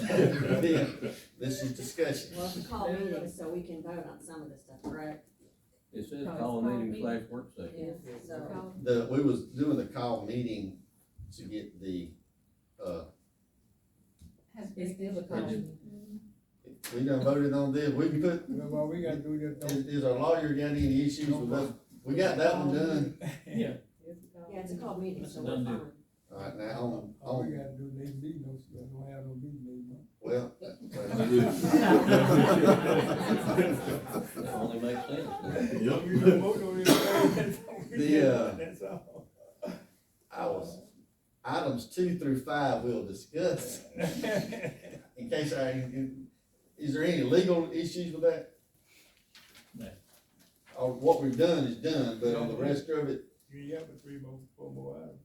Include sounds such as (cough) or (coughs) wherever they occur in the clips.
Then, This is discussion. Well, it's a call meeting, so we can vote on some of this stuff, correct? It says it's call called meeting meeting. slash work session. Yeah, so, The, we was doing the call meeting to get the, uh, It's still a caution. we done voted on this, we can put, Well, well, we gotta do (laughs) this. is, is our lawyer got any issues with us? We got that one done. Yeah. yeah, it's a call meeting, so Done we're deal. fine. Alright, now, on, All we on, gotta do, they beat no, so I don't have no beat no. well. That only makes sense. then. Yep. (laughs) (laughs) The, uh, That's all. (laughs) I was, items two through five we'll (laughs) discuss, in case I, is there any legal issues with that? No. Or what we've done is done, but on the rest of it, You got the three more, four more hours.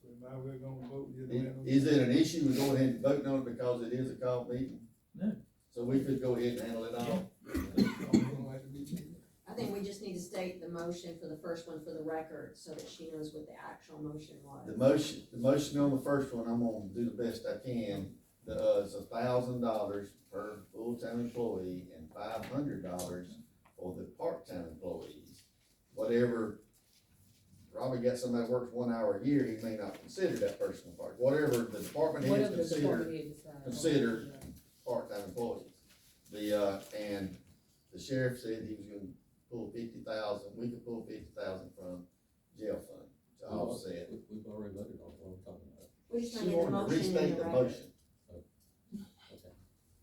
So now we're gonna vote, you i- don't have no. is it an issue with going ahead and voting on it because it is a call meeting? No. So we could go ahead and handle it all? I don't like the beat no. I think we just need to state the motion for the first one for the record, so that she knows what the actual motion The was. motion, the motion on the first one, I'm gonna do the best I can, the, uh, it's a thousand dollars per full-time employee and five hundred dollars for the part-time employees. Whatever, Robbie got somebody that works one hour a year, he may not consider that person a part, whatever the department heads Whatever the consider department head decides. consider part-time employees. The, uh, and the sheriff said he was gonna pull fifty thousand, we could pull fifty thousand from jail fund to offset. We- We've already voted on what we're talking about. We just She need the wanted to motion in the restate the record, motion.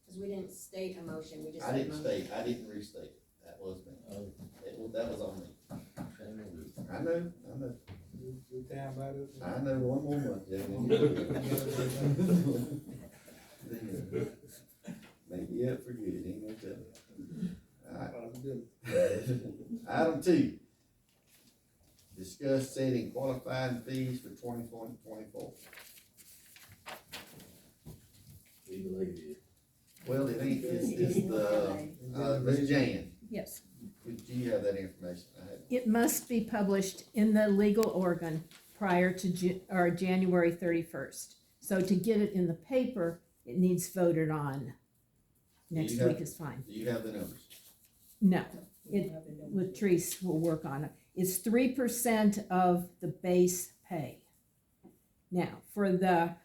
cause we didn't state a motion, we just. I said didn't motion. state, I didn't restate. it. That was me. Oh, It was, that was on me. shame on you. I know, I know, Your- your time out of. I know one more month, Jack. and you'll be good. (laughs) Maybe up for good, ain't no telling. Alright, Item two. Discuss setting qualifying fees for twenty twenty twenty-four. Even like it. Well, it ain't, it's, it's the, uh, Ms. Jan, Yes, do you have that information? I had it must be published in the legal organ prior to Ju- or January thirty-first. So to get it in the paper, it needs voted on. Next Yeah. week is fine. Do you have the numbers? No, It, Latrice will work on it. It's three percent of the base pay. Now, for the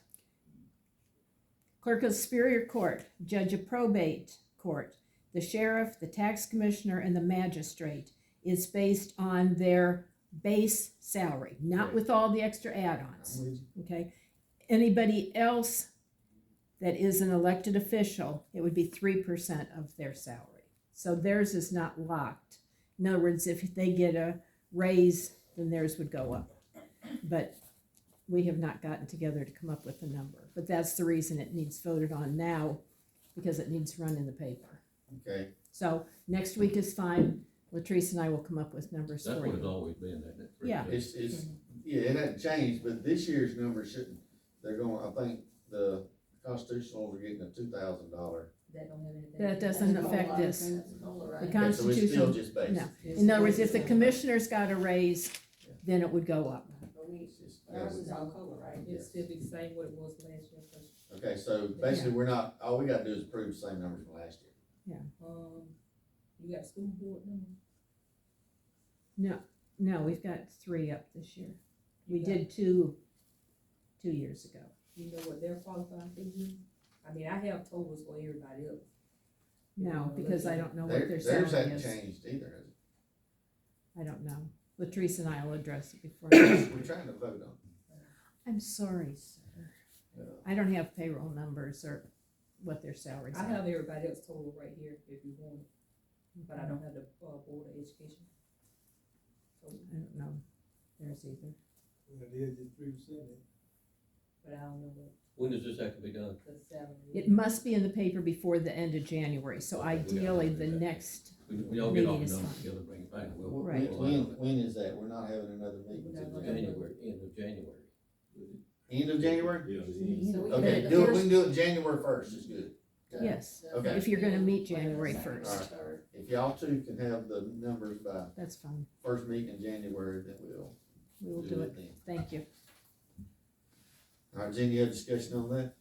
clerk of superior court, judge of probate court, the sheriff, the tax commissioner, and the magistrate, it's based on their base salary, not with all the extra add-ons I'm with you. okay? Anybody else that is an elected official, it would be three percent of their salary. So theirs is not locked. In other words, if they get a raise, then theirs would go up. But we have not gotten together to come up with a number. But that's the reason it needs voted on now, because it needs run in the paper. Okay, So next week is fine. Latrice and I will come up with numbers That's for what it's you. always been, that, that. Yeah. It's, it's, yeah, it hasn't changed, but this year's number shouldn't, they're going, I think the constitutionals are getting a two thousand dollar. That don't have anything. That doesn't affect this. That's a COLA, right? So The it's still Constitutional- just basic. no. In other words, if the commissioner's got a raise, Yeah. then it would go up. But we, It's just- ours is all COLA, right? It's still the same what it was last year, but, Okay, so basically, we're not, all we gotta do is approve the same numbers from last year. um, you got school board number? No, we've got three up this year. We You got- did two, two years ago. You know what their qualifying fee is? I mean, I have totals for everybody else. No, because I don't know what Their- their Theirs salary hasn't is. changed either, I don't know. Latrice and I will address (coughs) it before. has it? we're trying to vote on. I'm sorry, sir. Yeah. I don't have payroll numbers or what their salaries I are. have everybody else total right here if you want, it, but I don't have the, uh, board of education. total, I don't know theirs either. It is just three percent. But I don't know what When does this have to be done? the salary It is. must be in the paper before the end of January, so Okay, we gotta ideally do the that. next, We, we all get all the Meeting is numbers fine. together, bring it back. and we'll- When, Right. when, we'll- when is that? We're not having another meeting We're till not January. January, end of January. End of January? Yeah, it's- So we Okay, did the do it, we first- can do it January first, it's good. Okay. yes, the Okay. If you're gonna meet first meeting, January second, first. third. If y'all two can have the numbers by that's fine. first meeting in January, then we'll We will do do it. it then. Thank you. All right, Jen, you have discussion on that?